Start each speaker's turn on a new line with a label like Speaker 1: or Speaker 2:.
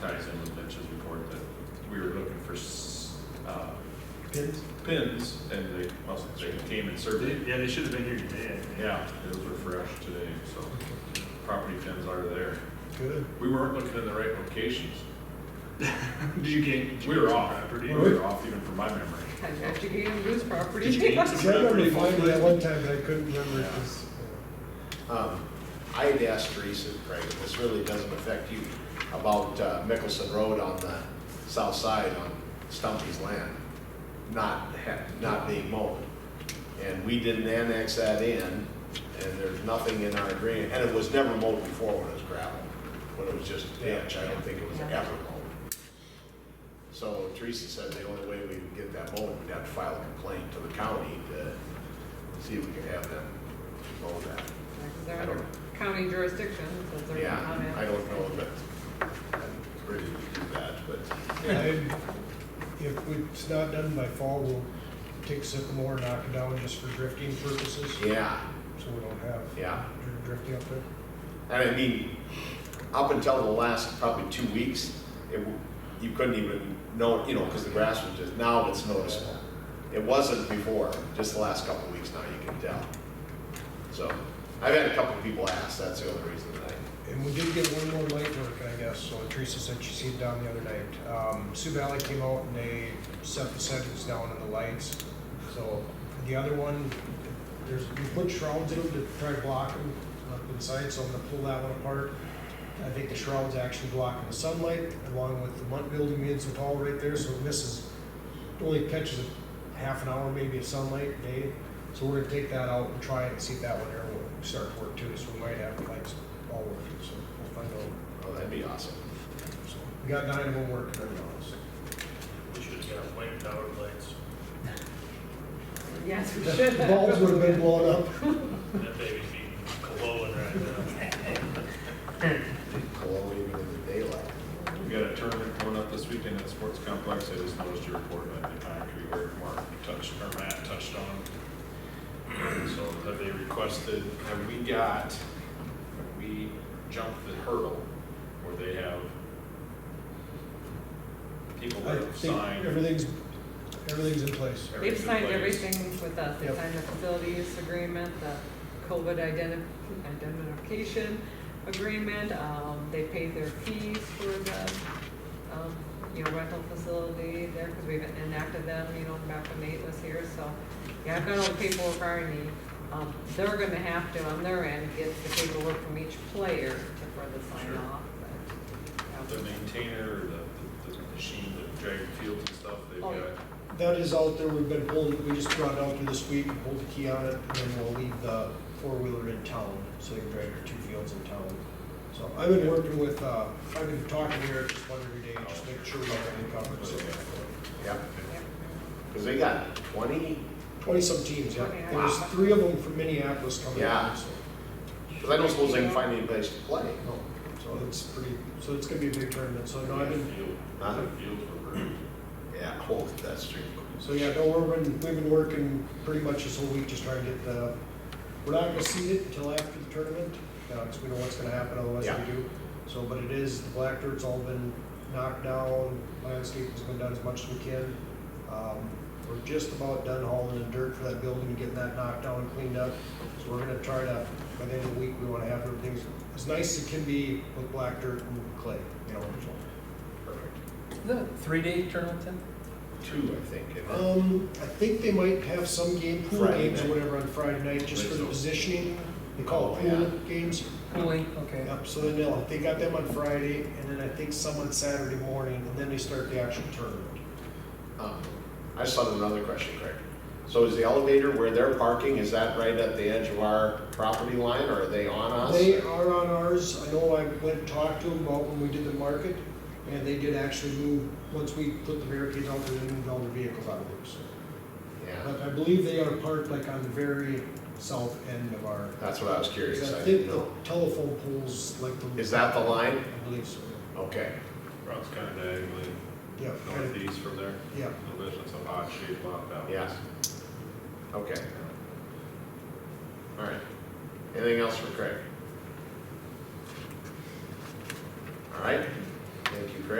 Speaker 1: ties in with Lynch's report that we were looking for, s- uh. Pins? Pins, and they, well, they came and surveyed.
Speaker 2: Yeah, they should have been here today.
Speaker 1: Yeah, those were fresh today, so property pins are there.
Speaker 3: Good.
Speaker 1: We weren't looking in the right locations.
Speaker 2: Did you gain?
Speaker 1: We were off, we
Speaker 2: Property?
Speaker 1: were off even from my memory.
Speaker 4: After you gain lose property.
Speaker 2: Did you gain
Speaker 3: See, I remember finding that one time, but I couldn't remember it was.
Speaker 5: Um, I had asked Teresa, Craig, and this really doesn't affect you, about uh, Mickelson Road on the south side on Stumpy's land, not, ha- not being mowed. And we didn't annex that in, and there's nothing in our agreement, and it was never mowed before when it was gravel, when it was just ditch, I don't think it was ever mowed. So Teresa said the only way we would get that mowed, we'd have to file a complaint to the county to see if we could have them mow that.
Speaker 4: They're under county jurisdiction, so they're. not
Speaker 5: Yeah,
Speaker 4: in.
Speaker 5: I don't know that I'm ready to do that, but
Speaker 3: Yeah, and uh, If it's not done by fall, we'll take sycamore, knock it down just for drifting purposes,
Speaker 5: yeah,
Speaker 3: so we don't have
Speaker 5: yeah.
Speaker 3: dr- drifting up there.
Speaker 5: And I mean, up until the last probably two weeks, it, w- you couldn't even know, you know, because the grass was just, now it's noticeable. It wasn't before, just the last couple of weeks now you can tell. So, I've had a couple of people ask, that's the only reason that I,
Speaker 3: And we did get one more light work, I guess, so Teresa said she seen it down the other night. Um, Sioux Valley came out and they set the settings down on the lights. So the other one, there's, we put shrouds in to try to block them up inside, so I'm gonna pull that one apart. I think the shrouds actually blocking the sunlight along with the mud building being so tall right there, so it misses, only catches a half an hour maybe of sunlight a day. So we're gonna take that out and try it and see if that one there will start to work too, so we might have lights all working, so we'll find out.
Speaker 5: oh, that'd be awesome.
Speaker 3: So We got nine of them working right now, so.
Speaker 2: We should have got white power lights.
Speaker 4: Yes, we should.
Speaker 3: The Bulbs would have been blown up.
Speaker 2: That baby's being glowing right
Speaker 5: Hello, even in the daylight.
Speaker 1: We got a tournament coming up this weekend at the sports complex, I just noticed your report about the concrete where Mark touched, or Matt touched on. So have they requested, have we got, have we jumped the hurdle where they have people
Speaker 3: I
Speaker 1: that have
Speaker 3: think
Speaker 1: signed?
Speaker 3: everything's, everything's in place.
Speaker 4: They've signed
Speaker 1: everything's in place?
Speaker 4: everything with us, they
Speaker 3: Yep.
Speaker 4: signed the facility use agreement, the COVID identi- identification agreement, um, they paid their fees for the, um, you know, rental facility there, because we've enacted them, you know, back when Nate was here, so, yeah, I've got all the paperwork already. Um, they're gonna have to, on their end, get the paperwork from each player to further sign
Speaker 1: Sure.
Speaker 4: off, but, um,
Speaker 1: The
Speaker 4: yeah.
Speaker 1: maintainer, or the, the- the machine, the dragon fields and stuff, they've
Speaker 4: Oh,
Speaker 1: got,
Speaker 4: yeah.
Speaker 3: That is out there, we've been holding, we just brought it out there this week, hold the key on it, and then we'll leave the four-wheeler in town, so you can drive your two fields in town. So I've been working with, uh, I've been talking to Eric just one every day, just make sure we have everything covered, so.
Speaker 5: Yeah,
Speaker 4: Yep.
Speaker 5: because they got twenty,
Speaker 3: Twenty-some teams, yeah,
Speaker 4: Okay.
Speaker 3: there's three of them from Minneapolis coming
Speaker 5: Yeah.
Speaker 3: out, so.
Speaker 5: because I don't suppose they can find any place to play.
Speaker 3: no, So it's pretty, so it's gonna be a big tournament, so no, I've
Speaker 1: the
Speaker 3: been,
Speaker 1: field,
Speaker 5: Huh?
Speaker 1: the fields were ruined.
Speaker 5: Yeah, oh, that's true.
Speaker 3: So yeah, no, we've been, we've been working pretty much this whole week, just trying to get the, we're not gonna see it until after the tournament, because we know what's gonna happen otherwise
Speaker 5: Yeah.
Speaker 3: we do. So, but it is, the black dirt's all been knocked down, landscaping's been done as much as we can. Um, We're just about done hauling the dirt for that building and getting that knocked down and cleaned up. So we're gonna try to, by the end of the week, we wanna have everything as nice as it can be with black dirt and clay, you know, so.
Speaker 6: Is that a three-day tournament then?
Speaker 5: Two, I think. and then-
Speaker 3: Um, I think they might have some game, pool
Speaker 5: Friday
Speaker 3: games or
Speaker 5: night.
Speaker 3: whatever on Friday night, just for the
Speaker 1: Right, so-
Speaker 3: positioning. They call it
Speaker 5: Oh, yeah.
Speaker 3: pool games.
Speaker 6: Cooling, okay.
Speaker 3: Yep, so then they'll, they got them on Friday, and then I think some on Saturday morning, and then they start the actual tournament.
Speaker 5: um, I just thought of another question, Craig. So is the elevator where they're parking, is that right at the edge of our property line, or are they on us?
Speaker 3: They are on ours, I know I went and talked to them about when we did the market, and they did actually move, once we put the barricades out, there, they moved all the vehicles out of there, so.
Speaker 5: Yeah,
Speaker 3: But I believe they are parked like on the very south end of our,
Speaker 5: that's what I was
Speaker 3: 'cause
Speaker 5: curious,
Speaker 3: I
Speaker 5: I
Speaker 3: think
Speaker 5: didn't
Speaker 3: the
Speaker 5: know.
Speaker 3: telephone poles like the.
Speaker 5: Is that the line?
Speaker 3: I believe so,
Speaker 5: Okay,
Speaker 1: Routes kind of diagonally
Speaker 3: yeah. kind of-
Speaker 1: northeast from there.
Speaker 3: Yeah,
Speaker 1: No, that's just a odd shaped lot that was.
Speaker 5: Yeah. okay. All right. Anything else for Craig? All right,